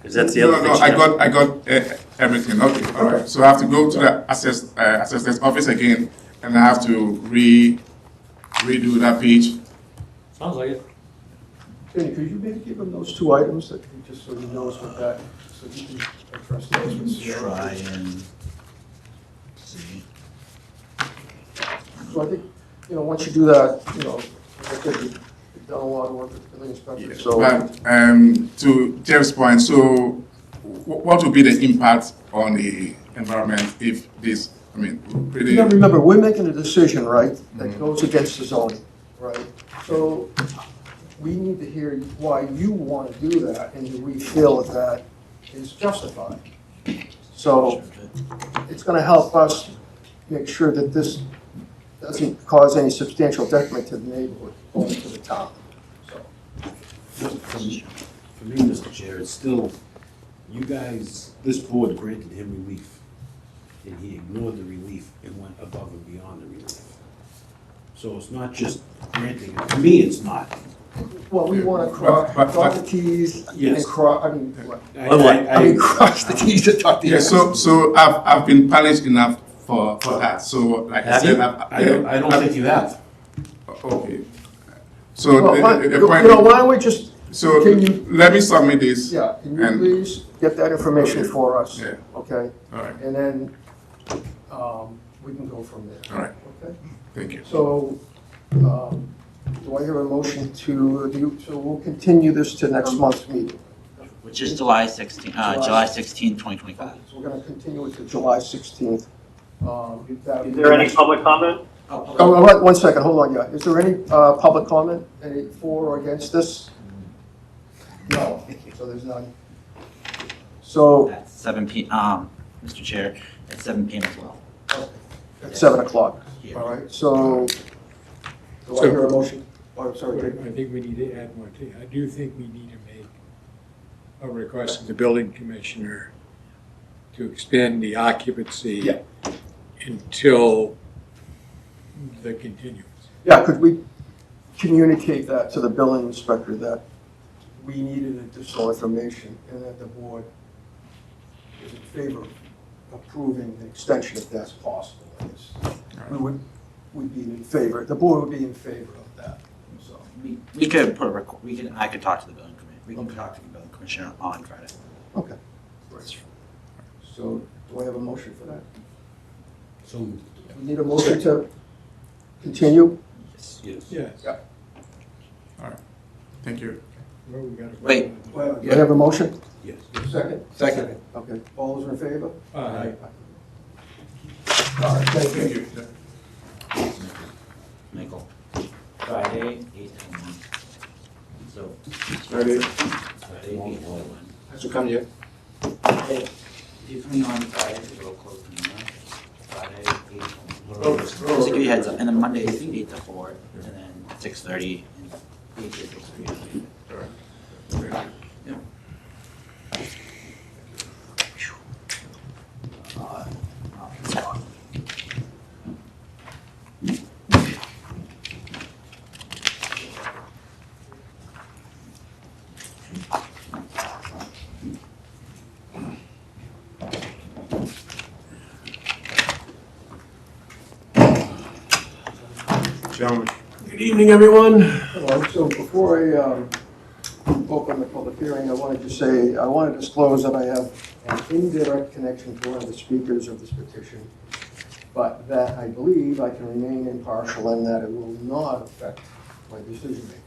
Because that's the No, other no, thing. I she knows. got, I got uh, everything, okay, all right. So I have to go to the assess, uh, assessment office again, and I have to re, redo that page. Sounds like it. Jenny, could you maybe give him those two items that he just sort of knows what that, so he can address those with Sierra? Try and see. So I think, you know, once you do that, you know, I think you've done a lot of work with the building inspector, Yes, so. But um, to Jeff's point, so wh- what would be the impact on the environment if this, I mean, You pretty, gotta remember, we're making a decision, right, that goes against the zoning, right? So we need to hear why you want to do that and we feel that that is justified. So it's gonna help us make sure that this doesn't cause any substantial detriment to the neighborhood or to the town. So For me, for me, Mr. Chair, it's still, you guys, this board granted him relief, and he ignored the relief and went above and beyond the relief. So it's not just granting, it. for me, it's not. Well, we want to cross, But- but- dot the Ts and Yes. cross, I mean, what? I- Well, I- I mean, I- cross the Ts and dot the yeah, Is. so, so I've, I've been polished enough for, for that, so like I Have said, you? I've. I don't, I don't think you have. Okay. So Well, why- the, You the- the point. know, why don't we just So Can you- let me submit this. Yeah, can you And- please get that information Okay. for us? Yeah. Okay, All right, and then, um, we can go from there. all right, Okay, thank you. so, um, do I hear a motion to, do you- so we'll continue this to next month's meeting? Which is July 16, uh, July July 16, 2025. So we're gonna continue it to July sixteenth. Um, Is Is there any public comment? Oh, all right, one second, hold on, yeah. Is there any, uh, public comment, any for or against this? No, so there's none. So, At 7 p, um, Mr. Chair, at 7 p.m. as well. at seven o'clock. Here. All right, so, do I hear a motion? Oh, sorry, Dick. I think we need to add more to, I do think we need to make a request to the building commissioner to extend the occupancy Yeah. until the continuance. yeah, could we communicate that to the building inspector that we needed additional information and that the board is in favor of approving an extension if that's possible? I guess. We would, would be in favor, the board would be in favor of that, so. We- We could put a, requ- we can, I could talk to the building commissioner, we can talk to the building commissioner on Friday. Okay. So do I have a motion for that? So, We need a motion to continue? yes. Yes. Yeah. Thank you. Well, we gotta- Wait. Do I have a motion? Yes. Second? Second. Okay, all those in favor? Aye. All right, thank you. Thank you. Michael. Friday, 8 to 1. So. Friday. Friday, 8 to 1. Has to come here. Depending on Friday, it'll close from there. Friday, 8 Oh, to 1. Just to give you a heads up, and then Monday is 8 to 4, and then 6:30, and 8 to 6:30. Uh, Gentlemen. Good evening, everyone. Hello, So before I um, open the public hearing, I wanted to say, I want to disclose that I have an indirect connection to one of the speakers of this petition, but that I believe I can remain impartial and that it will not affect my decision making.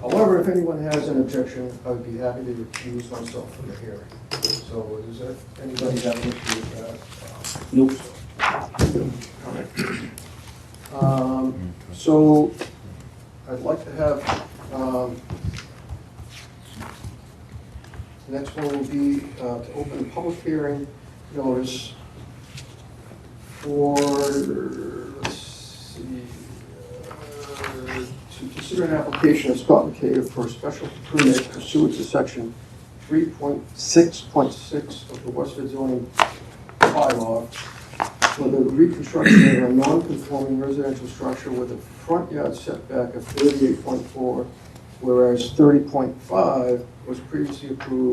However, if anyone has an objection, I would be happy to recuse myself from the hearing. So is there anybody that an issue with that? Nope. Um, So I'd like to have, um, the next one will be uh, to open a public hearing notice for, let's see, uh, to consider an application of Scott Cave for a special permit pursuant to section 3.6.6 of the Westford zoning bylaw for the reconstruction of a non-conforming residential structure with a front yard setback of 38.4, whereas 30.5 was previously approved